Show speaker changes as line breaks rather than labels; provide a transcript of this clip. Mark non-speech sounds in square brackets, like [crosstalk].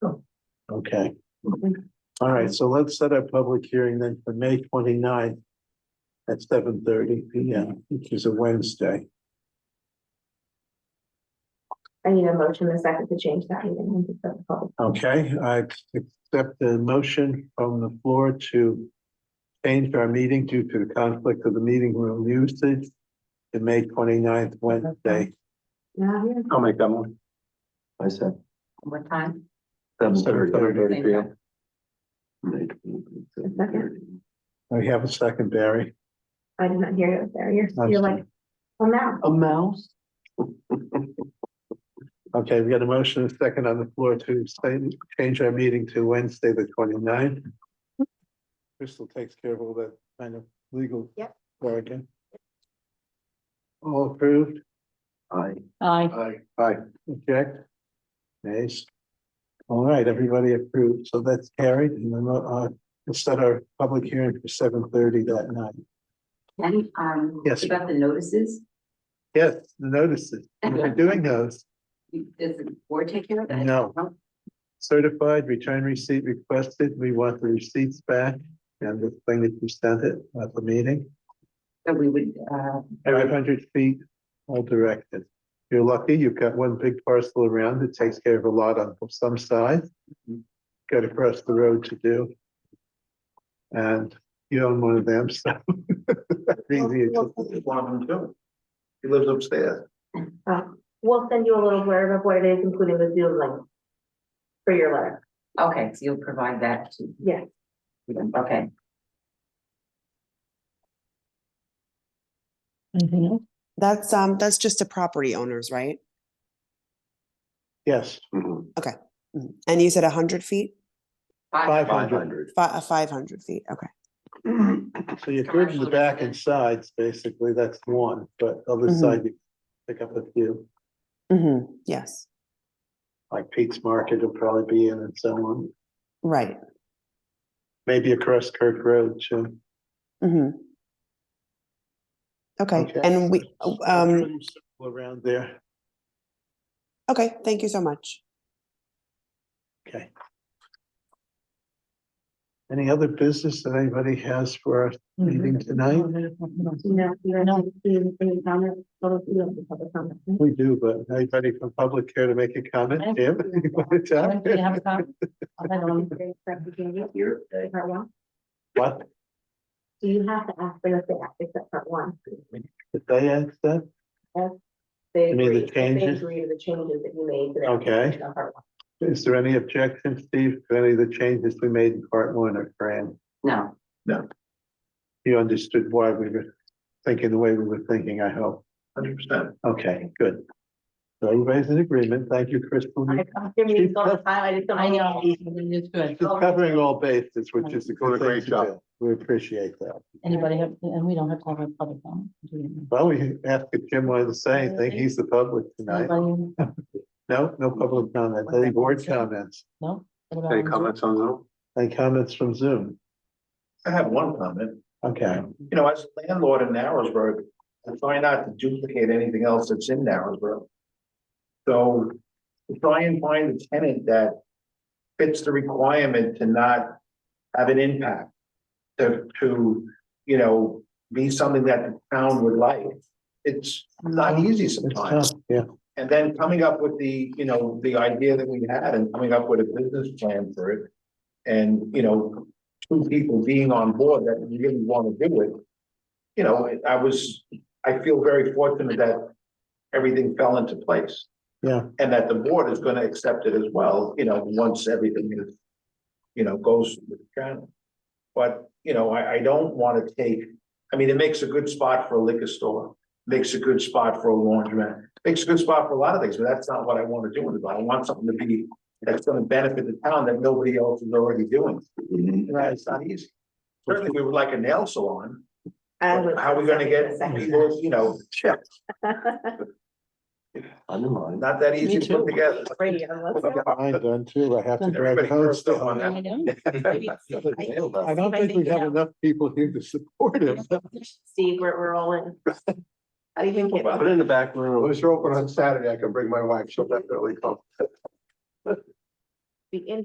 Okay. All right, so let's set our public hearing then for May 29th at seven thirty P M, which is a Wednesday.
I need a motion in a second to change that meeting. into the public.
Okay, I accept the motion from the floor to change our meeting due to the conflict of the meeting room usage to May 29th, Wednesday.
Now, yeah,
I'll make that one. I said.
What time?
Seven
Seven thirty.
thirty. p.m.
We have a second, Barry.
I did not hear you there. You're,
I'm
you're like, well, now,
Um,
A mouse?
Okay, we got a motion and a second on the floor to say, change our meeting to Wednesday, the 29th. Crystal takes care of all that kind of legal.
Yep.
work. eh? All approved?
Aye.
Aye.
Aye. Aye. Object? Nays? All right, everybody approved, so that's carried, and then, uh, we'll set our public hearing for seven thirty that night.
Can, um,
Yes.
about the notices,
Yes, the notices, we're doing those,
does the board take care of that?
No. certified, return receipt requested, we want the receipts back, and the thing that you sent it at the meeting.
So we would, uh,
Five hundred feet, all directed. You're lucky, you've got one big parcel around that takes care of a lot on some sides.
Mm-hmm.
Got across the road to do. And you own one of them, so. [laughs] that's easy.
One of them too. He lives upstairs.
uh, we'll send you a little blurb of what it is, including the Zoom link for your letter.
okay, so you'll provide that to,
Yes.
okay.
That's, um, that's just to property owners, right?
Yes,
mm-hmm.
Mm. And you said a hundred feet,
five
Five
hundred.
hundred.
fi- uh, five hundred feet, okay.
So you're good in the back and sides, basically, that's one, but other
Mm-hmm.
Mhm.
side, you pick up a few,
Mm-hmm, yes,
like Pete's Market will probably be in and so on.
right,
Maybe across Kirk Road, too.
mm-hmm. Okay,
Okay.
and we, um,
Around there.
okay, thank you so much.
Okay. Any other business that anybody has for our meeting tonight?
No, you don't have to do any comments, so you don't have to public comments.
We do, but anybody from public care to make a comment, Jim? You wanna talk?
Here.
Part one,
What,
do you have to ask for the fact except part one?
did they ask that?
They
You mean the
agree, they
changes?
agree to the changes that you made. to that
Okay.
section of part one.
Is there any objection, Steve, to any of the changes we made in part one or Fran?
No,
You understood why we were thinking the way we were thinking, I hope.
Hundred percent.
Okay, good. So everybody's in agreement. Thank you, Crystal.
I come to meetings all the time, I just don't.
I know, it's good.
Just covering all bases, which is a
Doing
good
a great
thing to
job.
do. We appreciate that.
Anybody have, and we don't have to have a public comment. do we?
Well, we asked if Jim wanted to say anything. He's the public tonight.
Anybody?
No, no public comment. Any board comments?
No? What about
Any
on
comments on Zoom?
Any comments from Zoom?
I have one comment.
Okay,
You know, as a landlord in Narrowsburg, I try not to duplicate anything else that's in Narrowsburg. So to try and find a tenant that fits the requirement to not have an impact. To, to, you know, be something that the town would like. It's not easy
it's
sometimes.
tough, yeah.
And then coming up with the, you know, the idea that we had and coming up with a business plan for it. And, you know, two people being on board that really want to do it. You know, I- I was, I feel very fortunate that everything fell into place.
Yeah.
And that the board is going to accept it as well, you know, once everything is, you know, goes with the channel. But, you know, I, I don't want to take, I mean, it makes a good spot for a liquor store, makes a good spot for a laundromat makes a good spot for a lot of things, but that's not what I want to do with it. I want something to be, that's gonna benefit the town that nobody else is already doing.
Mm-hmm.
And That's not easy. Certainly, we would like a nail salon.
I
but
would-
How are we gonna get people,
[laughs]
[laughs] you know,
I'm in line.
not that easy to
Me
put
too.
together. [laughs]
Radio, let's go.
Mine done too. I have to
Everybody
drag
curls
hose
up on
down.
that.
I know.
I don't think we have enough people here to support it.
Steve, we're, we're all
[laughs]
in. How do you think? it-
Put it in the back room.
you're open on Saturday, I can bring my wife, she'll definitely come.
The in-